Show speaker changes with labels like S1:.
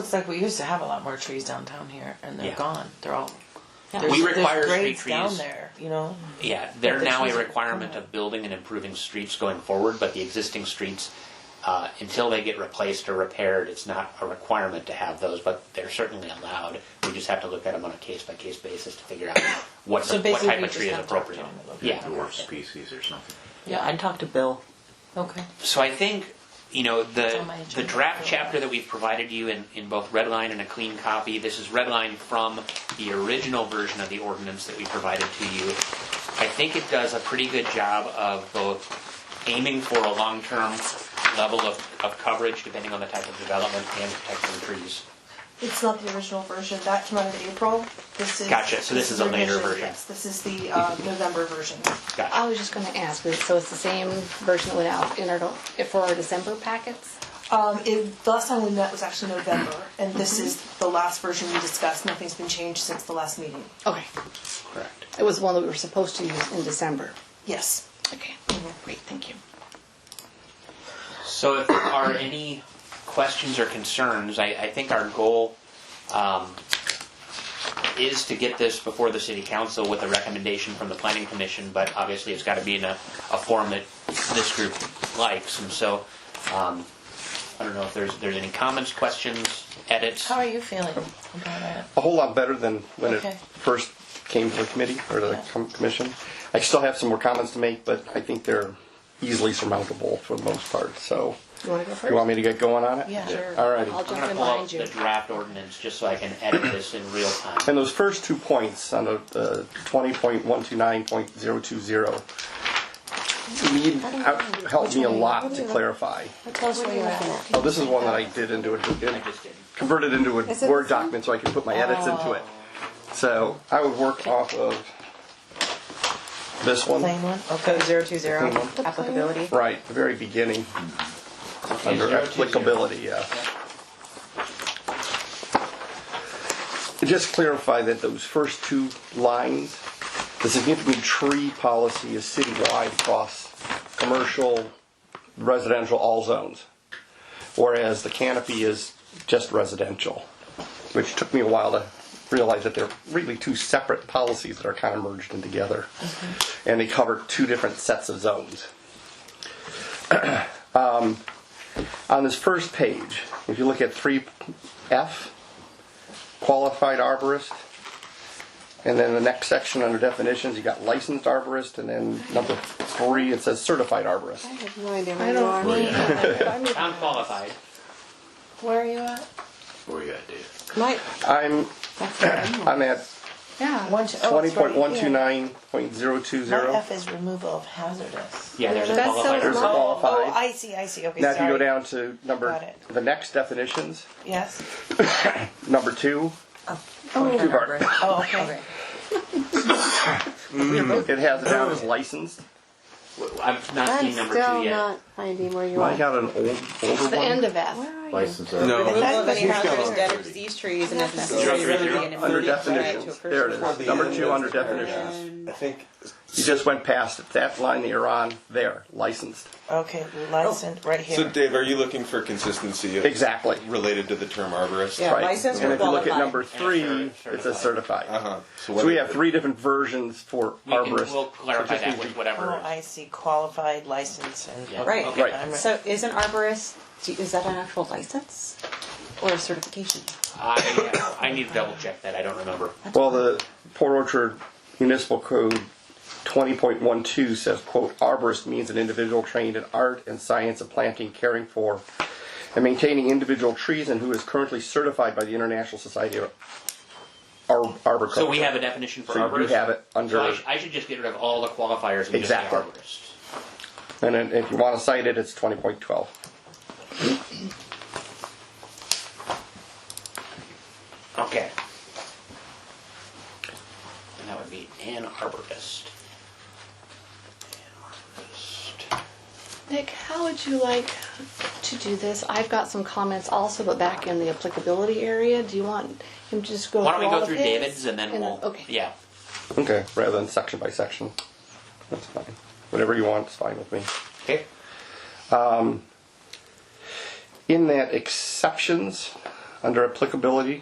S1: Looks like we used to have a lot more trees downtown here, and they're
S2: Yeah.
S1: gone. They're all.
S2: Yeah.
S1: there's-
S2: We require
S1: there's grades
S2: street
S1: down
S2: trees.
S1: there. You know,
S2: Yeah, they're
S1: But the
S2: now
S1: trees
S2: a
S1: are-
S2: requirement of building and improving streets going forward, but the existing streets, uh, until they get replaced or repaired, it's not a requirement to have those, but they're certainly allowed. We just have to look at them on a case-by-case basis to figure out what,
S1: So
S2: what
S1: basically
S2: type
S1: we
S2: of
S1: just
S2: tree is
S1: have to talk to
S2: appropriate.
S1: them about
S2: Yeah.
S1: that.
S3: dwarf species or something.
S1: Yeah,
S4: I'd talk to Bill.
S1: okay.
S2: So I think, you know, the,
S1: on my
S2: the
S1: agenda for
S2: draft
S1: a while.
S2: chapter that we've provided you in, in both redline and a clean copy, this is redline from the original version of the ordinance that we provided to you. I think it does a pretty good job of both aiming for a long-term level of, of coverage, depending on the type of development and protecting trees.
S5: It's not the original version. That came out in April. This is.
S2: Gotcha, so this is a later
S5: revision.
S2: version.
S5: Yes, this is the uh, November version.
S2: Gotcha.
S6: I was just going to ask, is- so it's the same version that went out in our, for our December packets?
S5: Um, it, the last time we met was actually November, and this is the last version we discussed. Nothing's been changed since the last meeting.
S6: Okay.
S2: Correct.
S6: It was one that we were supposed to use in December.
S5: Yes.
S6: Okay, great, thank you.
S2: So if there are any questions or concerns, I, I think our goal um, is to get this before the city council with a recommendation from the planning commission, but obviously it's got to be in a, a form that this group likes, and so um, I don't know if there's, there's any comments, questions, edits.
S1: How are you feeling about it?
S7: a whole lot better than when
S1: Okay.
S7: it first came to the committee or the com- commission. I still have some more comments to make, but I think they're easily surmountable for the most part. So,
S6: You want to go
S7: you
S6: first?
S7: want me to get going on it?
S1: Yeah. Sure.
S7: All righty.
S6: I'll
S2: I'm
S6: jump
S2: going to
S6: in
S2: pull up
S6: behind
S2: the
S6: you.
S2: draft ordinance just so I can edit this in real time.
S7: And those first two points on the, the 20.129.020 to me out- helped me a lot to clarify. Oh, this is one that I did into
S2: I
S7: a
S2: just did.
S7: converted into a
S4: Is it
S7: Word
S4: the same? Oh.
S7: document so I could put my edits into it. So I would work off of this one.
S1: Plain one. Okay.
S4: Oh, Code zero two zero,
S7: Mhm.
S4: applicability.
S7: Right, the very beginning,
S2: Okay, zero two
S7: under
S2: zero.
S7: applicability, yeah. To Just clarify that those first two lines, the significant tree policy is citywide across commercial, residential, all zones. Whereas the canopy is just residential, which took me a while to realize that they're really two separate policies that are kind of merged in together.
S1: Mm-hmm.
S7: And they cover two different sets of zones. Um, on this first page, if you look at 3F, qualified arborist, and then the next section under definitions, you got licensed arborist, and then number three, it says certified arborist.
S4: I have no idea
S6: I
S4: where you
S6: don't
S4: are.
S2: Sound qualified.
S1: Where are you at?
S3: Where you at, Dave?
S4: My,
S7: I'm, I'm at
S6: Yeah,
S1: One. two- oh, it's right here.
S7: 20.129.020.
S1: My F is removal of hazardous.
S2: Yeah, there's a
S4: That's so
S2: qualified.
S7: There's a
S1: Oh,
S7: qualified.
S1: Oh, I see. I see. Okay.
S7: Now if you
S1: sorry.
S7: go down to number,
S1: Got it.
S7: the next definitions,
S1: Yes.
S7: number two,
S4: oh,
S7: Two bar.
S1: Oh, okay.
S7: it has it down as licensed.
S2: I've not
S4: I'm
S2: seen number two
S4: still
S2: yet.
S4: not finding where you
S7: I
S4: are.
S7: got an old, older
S6: the end
S7: one.
S6: of F.
S3: License No.
S8: That's
S1: That's
S8: many
S1: what he's
S8: hazardous
S1: got.
S8: dead disease trees and if
S2: Zero,
S8: necessary,
S2: zero,
S8: really
S2: zero.
S8: an
S7: Under
S8: immediate threat to a
S7: definitions, there it
S8: person's
S7: is, number two under definitions.
S8: And
S9: I think
S7: You just went past it. That line that you're on there, licensed.
S1: Okay. Licensed right here.
S9: so. Dave, are you looking for consistency of
S7: Exactly.
S9: related to the term arborist?
S8: Yeah.
S7: Right.
S8: licensed
S7: and
S8: or
S7: if you look at
S8: qualified.
S7: number
S2: And
S7: three,
S2: it's cer-
S7: it says certified.
S9: Uh-huh.
S7: So we have three different versions for
S2: We can,
S7: arborist.
S2: we'll clarify
S7: So just
S2: that
S7: need
S2: with
S7: to-
S2: whatever.
S1: Oh, I see. Qualified, licensed, and
S2: Yeah.
S1: okay,
S8: Right.
S2: Right.
S1: I'm-
S8: So is an arborist, do- is that an actual license or a certification?
S2: I, I need to double check that. I don't remember.
S7: Well, the Port Orchard Municipal Code 20.12 says, quote, arborist means an individual trained in art and science of planting, caring for, and maintaining individual trees and who is currently certified by the International Society of Ar- Arboriculture.
S2: So we have a definition for
S7: So you
S2: arborist.
S7: have it under-
S2: So I, sh- I should just get rid of all the qualifiers and
S7: Exactly.
S2: just say
S7: And then if you want to cite it, it's 20.12.
S2: arborist. Okay. And that would be an arborist. An arborist.
S6: Nick, how would you like to do this? I've got some comments also, but back in the applicability area, do you want him to just go
S2: Why don't we
S6: through all
S2: go
S6: of
S2: through
S6: his?
S2: David's and then we'll.
S6: Okay.
S2: Yeah.
S7: Okay, rather than section by section. That's fine. Whatever you want is fine with me.
S2: Okay.
S7: In that exceptions, under applicability